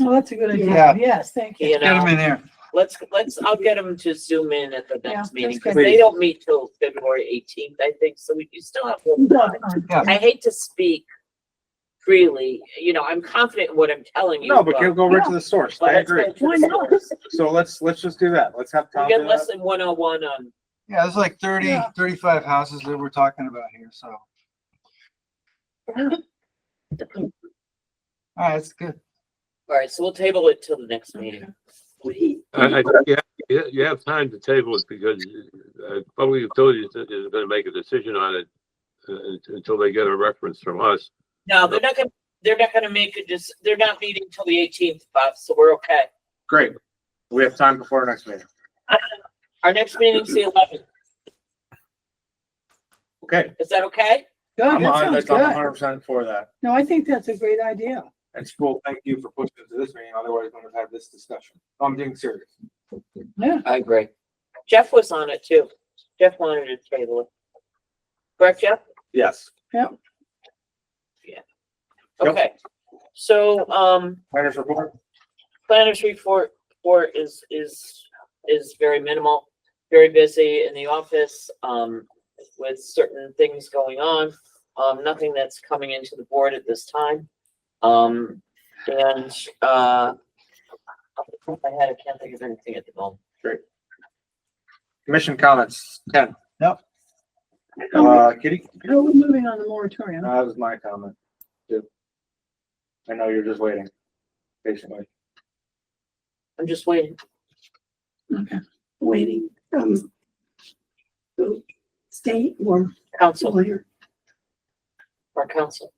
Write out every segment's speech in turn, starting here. yes. Oh, that's a good idea. Yeah. Yes, thank you. You Get them know, in there. let's, let's, I'll get them to zoom in at the Yeah, that's next meeting, because good. they don't meet till February eighteenth, I think, so we you still have. a little No, time. no. Yeah. I hate to speak freely, you know, I'm confident in what I'm telling you. No, but you'll go right to the source. but I let's agree. go to the source. So let's, let's just do that. Let's have We'll Tom get do that. less than one oh one on, Yeah, there's like 30, 35 Yeah. houses that we're talking about here, so. All right, it's good. all right, so we'll table it till the next meeting. We- I, I, think you have- you, have- you have time to table it because uh, public utilities is- is gonna make a decision on it uh, un- until they get a reference from us. No, they're not gonna, they're not gonna make it, just, they're not meeting till the eighteenth, Bob, so we're okay. Great. We have time before our next meeting. Our next meeting's the eleventh, Okay. is that okay? Good, I'm a Oh, that hundred, sounds I'm a good. hundred percent for that. No, I think that's a great idea. And school, thank you for pushing it to this meeting. Otherwise, we would have had this discussion. I'm being serious. Yeah. I agree. Jeff was on it too. Jeff wanted to table it. Correct, Jeff? Yes. Yep. Okay. So, um, Planners report? planners report, report is, is, is very minimal, very busy in the office, um, with certain things going on. Um, nothing that's coming into the board at this time. Um, and, uh, off the top of my head, I can't think of anything at the moment. Commission comments, Ken? Yep. Uh, Kitty? How are we moving on the moratorium? No, That was my comment. too. I know you're just waiting patiently. I'm just waiting. Okay. waiting from the state or Council, lawyer. our council.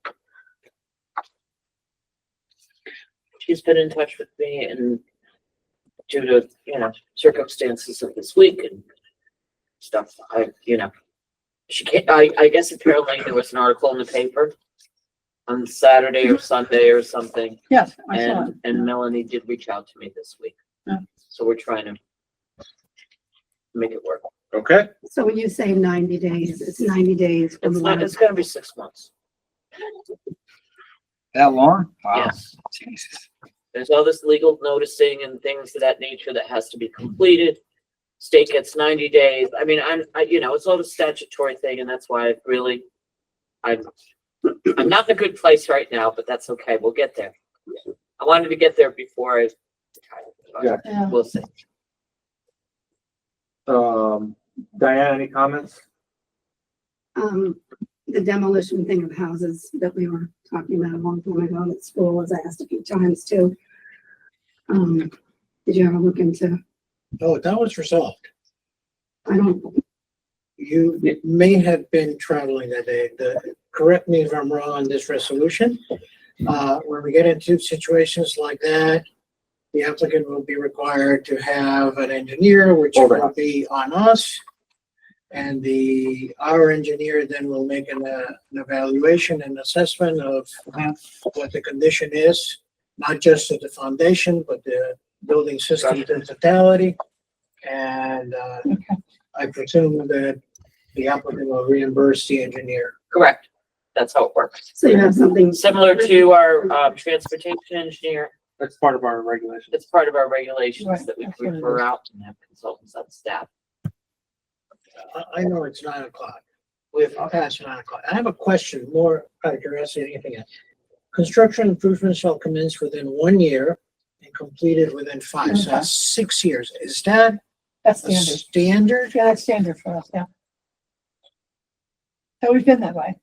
She's been in touch with me and due to, you know, circumstances of this week and stuff, I, you know. She can't, I, I guess apparently there was an article in the paper on Saturday or Sunday or something, Yes, I saw it. Oh. and, and Melanie did reach out to me this week. Yeah. So we're trying to make it work. Okay, So when you say ninety days, it's ninety days from It's not, when it's gonna be six months. That long? Wow. Yes. Jesus. There's all this legal noticing and things of that nature that has to be completed. State gets ninety days. I mean, I'm, I, you know, it's all the statutory thing and that's why I really, I'm, I'm not in a good place right now, but that's okay. We'll get there. I wanted to get there before I retired. Yeah. uh, but We'll see. um, Diane, any comments? um, the demolition thing of houses that we were talking about a long time ago at school was asked a few times too. Um, did you ever look into, No, Oh, that was resolved. I don't, You may have been traveling that day. The, correct me if I'm wrong on this resolution. Mm-hmm. Uh, when we get into situations like that, the applicant will be required to have an engineer, which Hold on. will be on us. And the, our engineer then will make an, uh, an evaluation and assessment of what the condition is, not just of the foundation, but the building system in totality. And, uh, Okay. I presume that the applicant will reimburse the engineer. Correct. That's how it works. so you have something, Similar to our, um, transportation engineer, That's part of our regulation. it's part of our regulations Right, that we that's what it refer is. out and have consultants on staff. I, I know it's nine o'clock. We've, Past nine o'clock. I have a question more out of curiosity than anything else. Construction improvements shall commence within one year and completed within five, so that's six years. Is that That's a standard. standard? Yeah, that's standard for us, yeah. So we've been that way.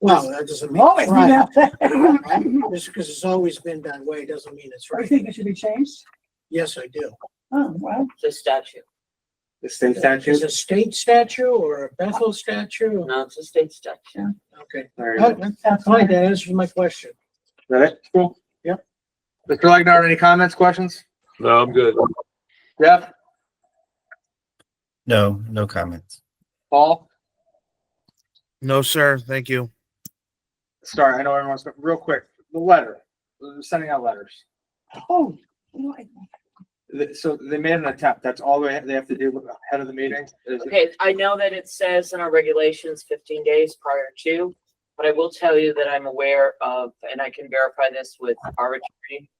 Well, that doesn't mean Always it's been right. that way. right? Just because it's always been that way doesn't mean it's Do you right. think it should be changed? Yes, I do. Oh, well, the statute. The state Is statute? it a state statute or a Bethel statute? No, it's a state statute. Okay. There you go. Oh, Is that's Fine, fine. that answers my question. that it? Cool. Yep. Mr. Legnar, any comments, questions? No, I'm good. Jeff, No, no comments. Paul? No, sir. Thank you. Sorry, I know everyone's, real quick, the letter, uh, sending out letters. Oh, no, I- Th- So they made an attempt. That's all they, they have to do ahead of the meeting. is- Okay, I know that it says in our regulations fifteen days prior to, but I will tell you that I'm aware of, and I can verify this with our attorney,